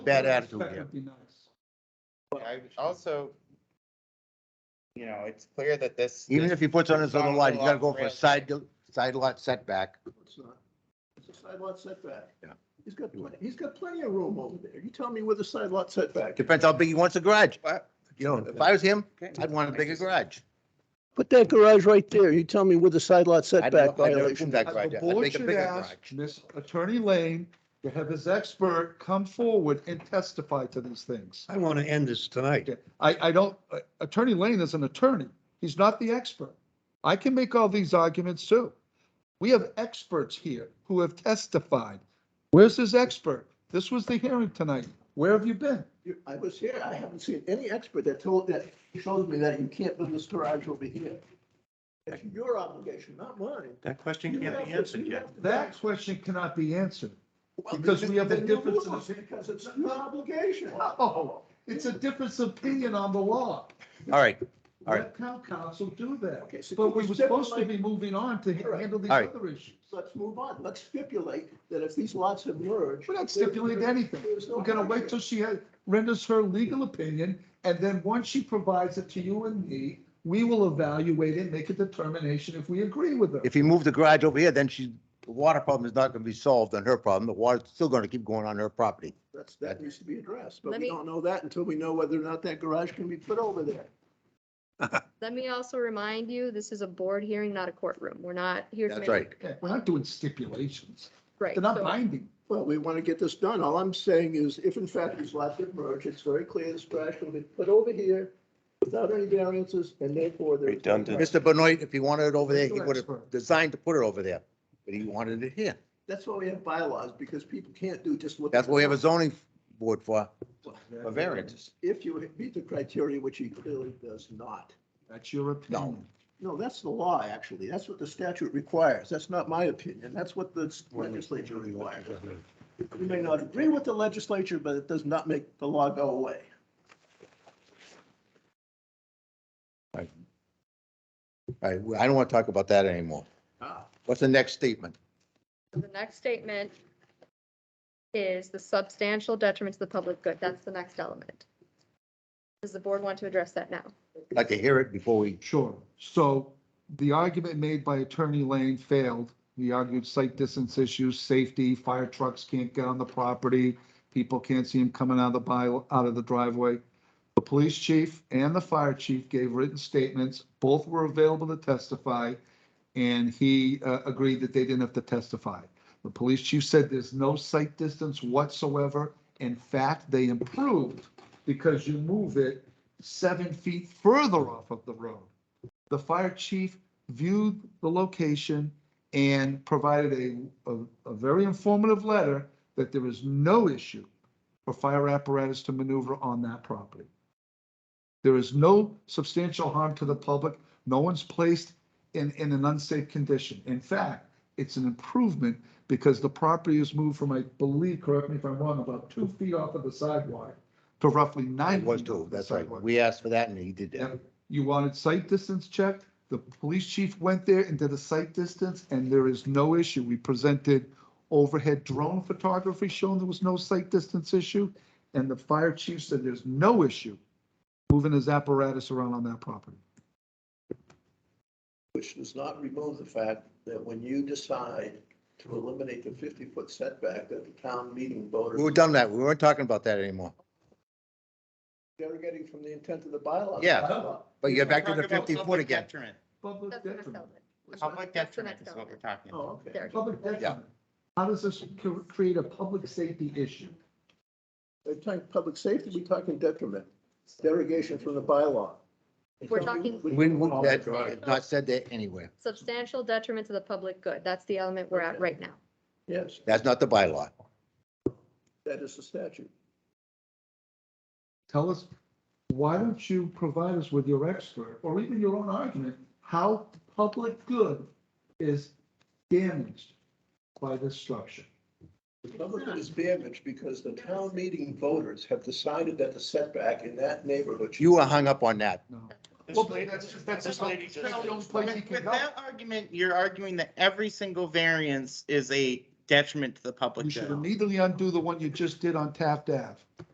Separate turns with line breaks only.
bad attitude
That
here.
would be nice.
I also, you know, it's clear that this.
Even
this-
if he puts on his other lot, he's gotta go for a side, side lot setback.
It's not. It's a side lot setback.
Yeah.
He's got, plenty- he's got plenty of room over there. You tell me where the side lot setback. is.
Depends how big he wants a garage. You know, if I was him, I'd want a bigger garage.
Put that garage right there. You tell me where the side lot
I'd never-
setback
I'd never
violation.
put that
Uh,
garage
The
up. I'd
board
make a
should
bigger
ask
garage.
Miss Attorney Lane to have his expert come forward and testify to these things.
I want to end this tonight.
Okay, I, I don't, uh, Attorney Lane is an attorney. He's not the expert. I can make all these arguments too. We have experts here who have testified. Where's his expert? This was the hearing tonight. Where have you been?
You- I was here. I haven't seen any expert that told, that shows me that you can't put this garage over here. It's your obligation, not mine.
That question
You
can't
have
be
to-
answered
you
yet.
have to-
That question cannot be answered.
Well,
because we have a
then you
difference in
lose, Because it's not your obligation.
No, it's a difference of opinion on the law.
All right, All right.
Let town council do
Okay,
that.
so
But
can
we
you
were
step
supposed to
like-
be moving on to
All right.
handle these
All right.
other issues.
Let's move on. Let's stipulate that if these lots have merged.
We're not stipulating anything.
There's no
We're gonna wait till she has- renders her legal opinion, and then once she provides it to you and me, we will evaluate it, make a determination if we agree with her.
If he moved the garage over here, then she, the water problem is not gonna be solved on her problem. The water's still gonna keep going on her property.
That's, that needs to be addressed, but
Let
we
me-
don't know that until we know whether or not that garage can be put over there.
Let me also remind you, this is a board hearing, not a courtroom. We're not here to
That's
make.
right.
Yeah, We're not doing stipulations.
Right.
They're not
so-
binding.
Well, we want to get this done. All I'm saying is if in fact these lots have merged, it's very clear this garage will be put over here without any variances and therefore there's.
Redundant.
Mr. Benoit, if he wanted it over there, he
Mr.
would have
Expert.
designed to put it over there, but he wanted it here.
That's why we have bylaws, because people can't do just what.
That's what we have a zoning board for, for variances.
If you meet the criteria, which he clearly does not.
That's your opinion.
No, that's the law, actually. That's what the statute requires. That's not my opinion. That's what the legislature requires. You may not agree with the legislature, but it does not make the law go away.
All right, well, I don't want to talk about that anymore.
Ah.
What's the next statement?
so The next statement is the substantial detriment to the public good. That's the next element. Does the board want to address that now?
I'd like to hear it before we,
Sure. So the argument made by Attorney Lane failed. We argued sight distance issues, safety, fire trucks can't get on the property. People can't see him coming out of the by, out of the driveway. The police chief and the fire chief gave written statements. Both were available to testify. And he uh, agreed that they didn't have to testify. The police chief said there's no sight distance whatsoever. In fact, they improved because you move it seven feet further off of the road. The fire chief viewed the location and provided a, a, a very informative letter that there is no issue for fire apparatus to maneuver on that property. There is no substantial harm to the public. No one's placed in, in an unsafe condition. In fact, it's an improvement because the property is moved from, I believe, correct me if I'm wrong, about two feet off of the sidewalk to roughly nine.
it was
feet off
too,
of the
that's right.
sidewalk.
We asked for that and he did that.
Yep. You wanted site distance checked. The police chief went there and did a site distance, and there is no issue. We presented overhead drone photography showing there was no site distance issue, and the fire chief said there's no issue moving his apparatus around on that property.
Which does not remove the fact that when you decide to eliminate the fifty-foot setback that the town meeting voters.
We were done that. We weren't talking about that anymore.
Derogating from the intent of the Oh, bylaw.
Yeah. But you get back to the fifty foot again.
Public
That's the next
detriment.
element.
Public
That's the
detriment
next
is what we're
element.
talking about.
Oh, okay.
There.
Public detriment. How does this cr- create a public safety issue?
We're talking public safety, we're talking detriment, derogation from the bylaw.
We're talking-
We, we- that's not said that anywhere.
Substantial detriment to the public good. That's the element we're at right now.
Yes,
That's not the bylaw.
that is the statute.
tell us, why don't you provide us with your expert, or even your own argument, how public good is damaged by this structure?
The public is damaged because the town meeting voters have decided that the setback in that neighborhood. should-
You were hung up on that.
No.
This
Well,
lady-
that's just- that's just-
this lady just-
that's the only place you
With
can
with
go.
that argument, you're arguing that every single variance is a detriment to the public
You should
good.
immediately undo the one you just did on Taft Ave.